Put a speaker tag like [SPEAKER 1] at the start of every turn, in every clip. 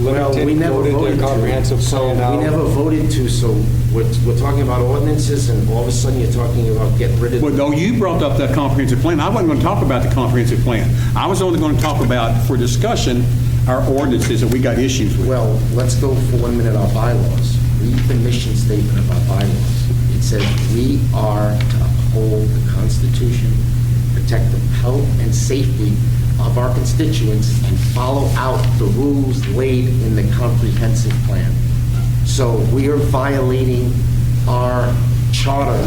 [SPEAKER 1] Well, we
[SPEAKER 2] limited,
[SPEAKER 1] never
[SPEAKER 2] voted
[SPEAKER 1] voted
[SPEAKER 2] their
[SPEAKER 1] to.
[SPEAKER 2] comprehensive
[SPEAKER 1] So
[SPEAKER 2] plan out.
[SPEAKER 1] we never voted to, so we're, we're talking about ordinances and all of a sudden you're talking about getting rid of.
[SPEAKER 3] Well, though you brought up that comprehensive plan, I wasn't going to talk about the comprehensive plan. I was only going to talk about, for discussion, our ordinances that we got issues with.
[SPEAKER 1] Well, let's go for one minute, our bylaws. Read the mission statement of our bylaws. It says, "We are to uphold the Constitution, protect the health and safety of our constituents, and follow out the rules laid in the comprehensive plan." So we are violating our charter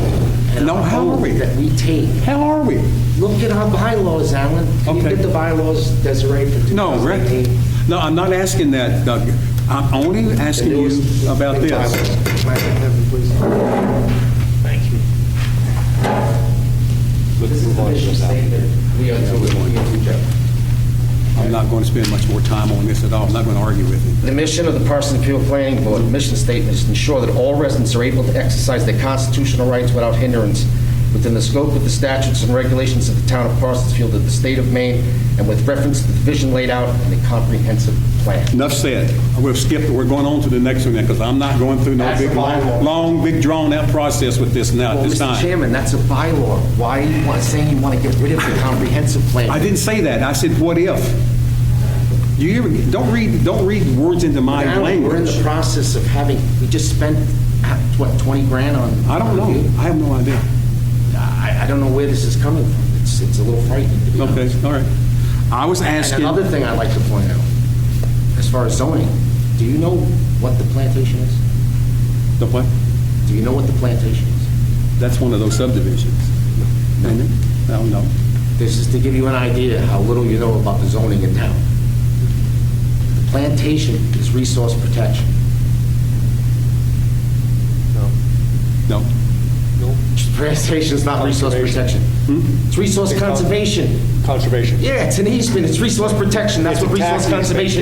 [SPEAKER 1] and
[SPEAKER 3] No,
[SPEAKER 1] our
[SPEAKER 3] how are
[SPEAKER 1] oath
[SPEAKER 3] we?
[SPEAKER 1] that we take.
[SPEAKER 3] How are we?
[SPEAKER 1] Look at our bylaws, Alan. Can you
[SPEAKER 3] Okay.
[SPEAKER 1] get the bylaws, Desiree, for
[SPEAKER 3] No, Rick,
[SPEAKER 1] 2018?
[SPEAKER 3] no, I'm not asking that, Doug. I'm only asking you about this.
[SPEAKER 1] Thank you. This is the mission statement. We are to, we are to, Jeff.
[SPEAKER 3] I'm not going to spend much more time on this at all. I'm not going to argue with you.
[SPEAKER 4] The mission of the Parsons Appeal Planning Board, mission statement is to ensure that all residents are able to exercise their constitutional rights without hindrance within the scope of the statutes and regulations of the town of Parsonsfield of the state of Maine and with reference to the vision laid out in the comprehensive plan.
[SPEAKER 3] Enough said. We've skipped, we're going on to the next one now, because I'm not going through no
[SPEAKER 1] That's
[SPEAKER 3] big,
[SPEAKER 1] the bylaw.
[SPEAKER 3] long, long, big drawn-out process with this now,
[SPEAKER 1] Well,
[SPEAKER 3] at this
[SPEAKER 1] Mr.
[SPEAKER 3] time.
[SPEAKER 1] Chairman, that's a bylaw. Why are you want- saying you want to get rid of the comprehensive plan?
[SPEAKER 3] I didn't say that. I said, what if? You hear, don't read, don't read words into my
[SPEAKER 1] Now, We're in
[SPEAKER 3] language.
[SPEAKER 1] the process of having, we just spent, uh, what, 20 grand on?
[SPEAKER 3] I don't know. I have no idea.
[SPEAKER 1] I, I don't know where this is coming from. It's, it's a little frightening, to be honest.
[SPEAKER 3] Okay, all right. I was
[SPEAKER 1] And
[SPEAKER 3] asking,
[SPEAKER 1] another thing I'd like to point out, as far as zoning, do you know what the plantation is?
[SPEAKER 3] the what?
[SPEAKER 1] Do you know what the plantation is?
[SPEAKER 3] That's one of those subdivisions. Isn't it? I don't know.
[SPEAKER 1] This is to give you an idea how little you know about the zoning in town. The plantation is resource protection.
[SPEAKER 3] No.
[SPEAKER 1] Plantation's not resource protection.
[SPEAKER 2] Conservation.
[SPEAKER 3] Hmm?
[SPEAKER 1] It's resource
[SPEAKER 2] They call it-
[SPEAKER 1] conservation.
[SPEAKER 2] Conservation.
[SPEAKER 1] Yeah, it's an easement, it's resource protection, that's
[SPEAKER 2] It's
[SPEAKER 1] what
[SPEAKER 2] a tax
[SPEAKER 1] resource
[SPEAKER 2] easement
[SPEAKER 1] conservation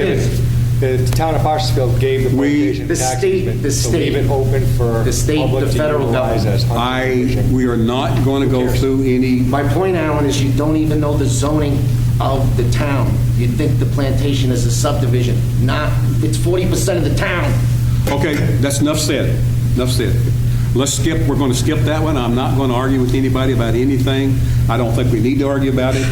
[SPEAKER 2] given.
[SPEAKER 1] is.
[SPEAKER 2] The town of Parsonsville gave the
[SPEAKER 3] We-
[SPEAKER 2] plantation
[SPEAKER 1] The
[SPEAKER 2] tax
[SPEAKER 1] state-
[SPEAKER 2] easement
[SPEAKER 1] the
[SPEAKER 2] to leave
[SPEAKER 1] state-
[SPEAKER 2] it open for
[SPEAKER 1] the state,
[SPEAKER 2] public
[SPEAKER 1] the
[SPEAKER 2] to
[SPEAKER 1] federal
[SPEAKER 2] utilize
[SPEAKER 1] government.
[SPEAKER 2] as
[SPEAKER 3] I,
[SPEAKER 2] conservation.
[SPEAKER 3] we are not going to go through any,
[SPEAKER 1] My point, Alan, is you don't even know the zoning of the town. You think the plantation is a subdivision, not, it's 40% of the town.
[SPEAKER 3] okay, that's enough said. Enough said. Let's skip, we're going to skip that one. I'm not going to argue with anybody about anything. I don't think we need to argue about it.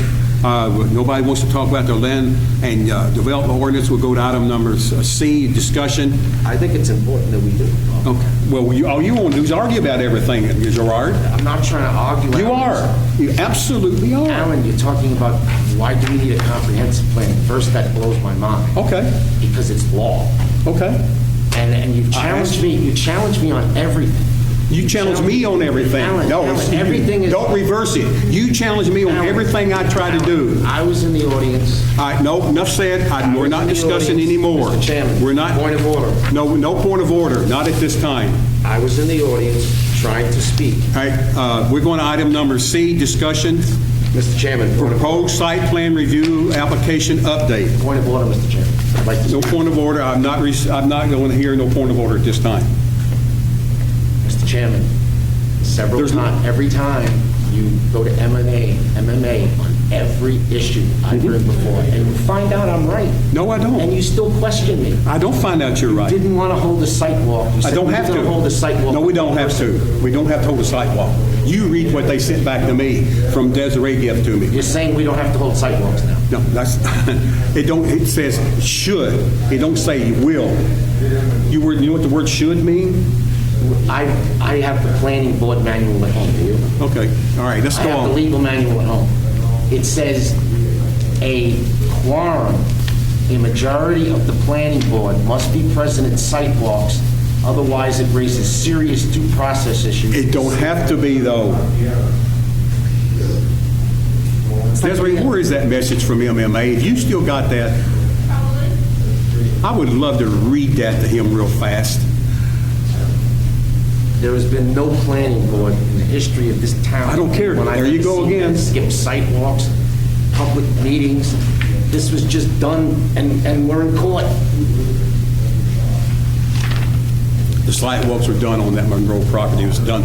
[SPEAKER 3] Uh, Nobody wants to talk about their land and uh, development ordinance. We'll go to item number uh, C, discussion.
[SPEAKER 1] I think it's important that we do.
[SPEAKER 3] Okay. Well, you, all you want to do is argue about everything, Gerard.
[SPEAKER 1] I'm not trying to argue.
[SPEAKER 3] You
[SPEAKER 1] Alan.
[SPEAKER 3] are. You absolutely are.
[SPEAKER 1] Alan, you're talking about why do we need a comprehensive plan? First, that blows my mind.
[SPEAKER 3] Okay,
[SPEAKER 1] Because it's law.
[SPEAKER 3] okay.
[SPEAKER 1] And, and you've
[SPEAKER 3] I
[SPEAKER 1] challenged
[SPEAKER 3] asked-
[SPEAKER 1] me, you challenged me on everything.
[SPEAKER 3] You challenge me on everything.
[SPEAKER 1] Alan,
[SPEAKER 3] No,
[SPEAKER 1] Alan,
[SPEAKER 3] it's-
[SPEAKER 1] everything is.
[SPEAKER 3] Don't reverse it. You challenge me on
[SPEAKER 1] Alan,
[SPEAKER 3] everything I try to
[SPEAKER 1] Alan,
[SPEAKER 3] do.
[SPEAKER 1] I was in the audience.
[SPEAKER 3] All right, no, enough said. I- We're not discussing anymore.
[SPEAKER 1] Mr. Chairman,
[SPEAKER 3] We're not.
[SPEAKER 1] point of order.
[SPEAKER 3] No, no point of order, not at this time.
[SPEAKER 1] I was in the audience trying to speak.
[SPEAKER 3] All right, uh, we're going to item number C, discussion,
[SPEAKER 1] Mr. Chairman, point of
[SPEAKER 3] proposed site plan review application update.
[SPEAKER 1] Point of order, Mr. Chairman. I'd like
[SPEAKER 3] No
[SPEAKER 1] to,
[SPEAKER 3] point of order, I'm not, rec- I'm not going to hear no point of order at this time.
[SPEAKER 1] Mr. Chairman, several
[SPEAKER 3] There's no-
[SPEAKER 1] times, every time you go to MMA, MMA on every issue I've heard before, and you find out I'm right,
[SPEAKER 3] Mm-hmm. No, I
[SPEAKER 1] and
[SPEAKER 3] don't.
[SPEAKER 1] you still question me.
[SPEAKER 3] I don't find out you're right.
[SPEAKER 1] Didn't want to hold a site walk. You
[SPEAKER 3] I
[SPEAKER 1] said
[SPEAKER 3] don't
[SPEAKER 1] we
[SPEAKER 3] have
[SPEAKER 1] were
[SPEAKER 3] to.
[SPEAKER 1] gonna hold a site walk.
[SPEAKER 3] No, we don't have to. We don't have to hold a sidewalk. You read what they sent back to me from Desiree Gift to me.
[SPEAKER 1] You're saying we don't have to hold site walks now.
[SPEAKER 3] No, that's, it don't, it says should. It don't say you will. You were, you know what the word should mean?
[SPEAKER 1] I, I have the planning board manual at home, do you?
[SPEAKER 3] Okay, all right, let's
[SPEAKER 1] I
[SPEAKER 3] go
[SPEAKER 1] have the
[SPEAKER 3] on.
[SPEAKER 1] legal manual at home. It says a quorum, a majority of the planning board must be present at site walks, otherwise it raises serious due process issues.
[SPEAKER 3] It don't have to be though. Desiree, where is that message from MMA? If you still got that, I would love to read that to him real fast.
[SPEAKER 1] There has been no planning board in the history of this town.
[SPEAKER 3] I don't care.
[SPEAKER 1] when I've
[SPEAKER 3] There you
[SPEAKER 1] ever
[SPEAKER 3] go
[SPEAKER 1] seen
[SPEAKER 3] again.
[SPEAKER 1] that Skip site walks, public meetings. This was just done, and, and we're in court.
[SPEAKER 3] The sidewalks were done on that Monroe property. It was done